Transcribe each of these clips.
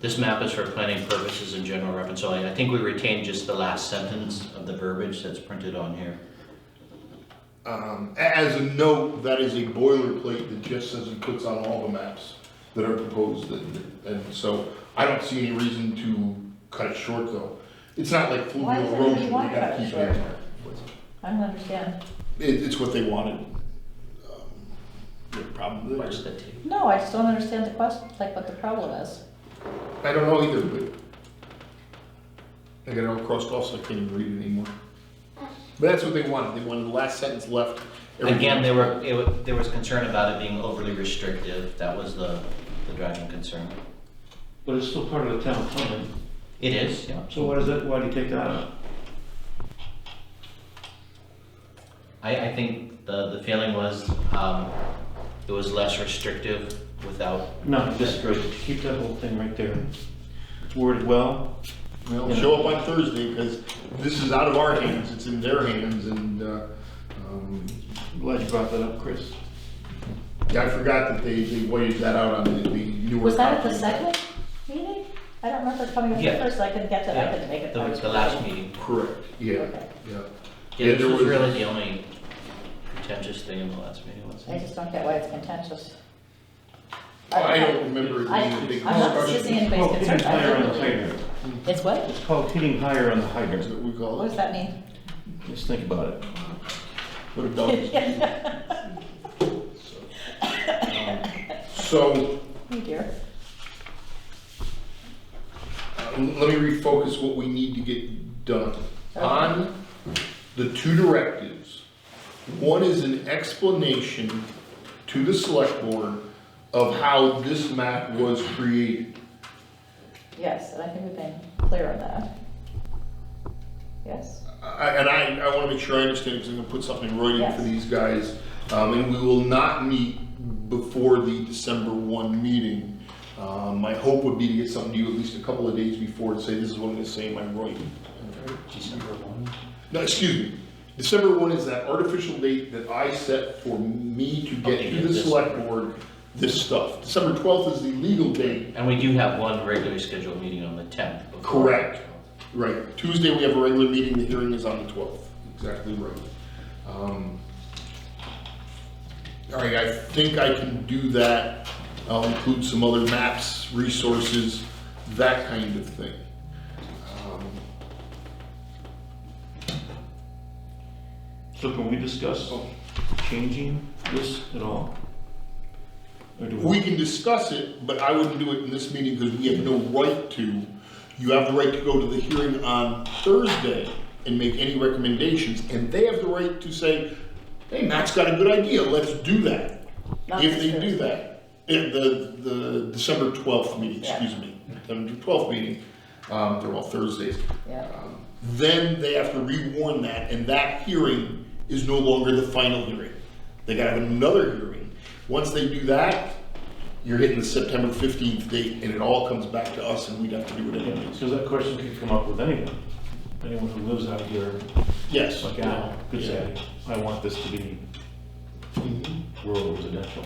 This map is for planning purposes and general reference only. I think we retained just the last sentence of the verbiage that's printed on here. Um, a- as a note, that is a boilerplate that just says it puts on all the maps that are proposed, and, and so I don't see any reason to cut it short though. It's not like Why fluvial does erosion, everybody we want to gotta cut it keep short? it. I don't understand. It, it's what they wanted. Um, The problem What's is, the T? No, I just don't understand the question, like what the problem is. I don't know either, but I got it all crossed off, so I can't even read it anymore. But that's what they wanted, they wanted the last sentence left. everything Again, there were, it wa- there was concern about it being overly restrictive. That was the, the driving concern. But it's still part of the town plan, Uh, It is, yeah. so why does that, why do you take that out? I, I think the, the feeling was, um, it was less restrictive without, No, just right, keep that whole thing right there. It's worded well, Well, show up on Thursday, because this is out of our hands, it's in their hands, and, uh, um, I'm glad you brought that up, Chris. yeah, I forgot that they, they waited that out on the, the newer. Was that at the copy. second meeting? I don't remember coming up the Yeah. first, I couldn't get to, I yeah, couldn't make it. the, first. the last meeting. Correct, yeah, Okay. yeah. Yeah, this there was was- really the only contentious thing in the last meeting, was I just don't get why it's contentious. Oh, I don't remember it I- being a big I'm not discussion. dismissing anybody's Called hitting concern. I higher on the didn't- hydrant. It's what? It's called hitting higher on the That's hydrant. what we call What it. does that mean? Just think about it. What a dog. So, Oh dear. uh, let me refocus what we need to get done. On the two directives, one is an explanation to the select board of how this map was created. Yes, and I think we've been clear on that. Yes? I- And I, I want to make sure I understand, because I'm going to put something in writing for Yes. these guys. Um, And we will not meet before the December 1 meeting. Um, My hope would be to get something to you at least a couple of days before to say, this is what I'm going to say in my writing. December one. No, excuse me. December 1 is that artificial date that I set for me to Okay, get to yeah, the this- select board this stuff. December 12th is the legal date. And we do have one regularly scheduled meeting on the tenth. Correct. Right, Tuesday we have a regular meeting, the hearing is on the 12th. Exactly right. Um, All right, I think I can do that. I'll include some other maps, resources, that kind of thing. Um, So can we discuss changing this at all? Or do We can discuss it, but I wouldn't do it in this meeting because we have no right to. You have the right to go to the hearing on Thursday and make any recommendations, and they have the right to say, hey, Matt's got a good idea, let's do that. Not If they this do that, if the, the December 12th meeting, Yeah. excuse me, December 12th meeting, um, they're all Thursdays. Yeah. um, Then they have to rewarn that, and that hearing is no longer the final hearing. They gotta have another hearing. Once they do that, you're hitting the September 15th date, and it all comes back to us, and we'd have to do it anyways. Because that question could come up with anyone, anyone who lives out here, Yes. like Al, could Yeah. say, I want this to be Mhm. rural residential.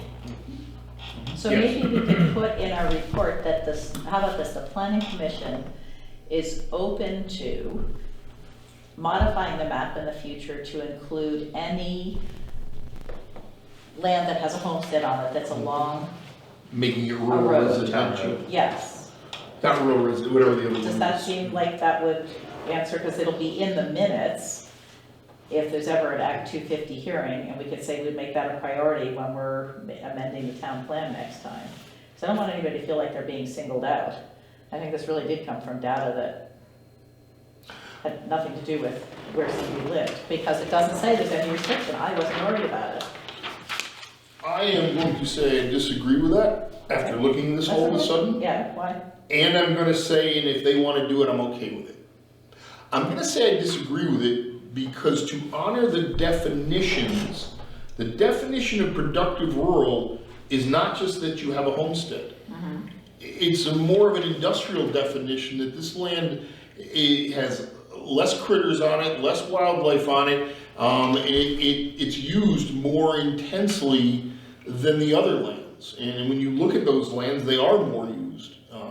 So Yes. maybe we can put in our report that this, how about this, the planning commission is open to modifying the map in the future to include any land that has a homestead on it that's along, Making it A rural road. residential. yes. Not rural residential, whatever the other one is. Does that seem like that would answer, because it'll be in the minutes if there's ever an Act 250 hearing, and we could say we'd make that a priority when we're amending the town plan next time. So I don't want anybody to feel like they're being singled out. I think this really did come from data that had nothing to do with where somebody lived, because it doesn't say there's any restriction, I wasn't worried about it. I am going to say I disagree with that after looking this all of a That's okay. sudden. Yeah, why? And I'm gonna say, and if they wanna do it, I'm okay with it. I'm gonna say I disagree with it because to honor the definitions, the definition of productive rural is not just that you have a homestead. It's a more of an industrial definition that this land, it has less critters on it, less wildlife on it. Um, it, it, it's used more uh, intensely than the other lands. And when you look at those lands, they are more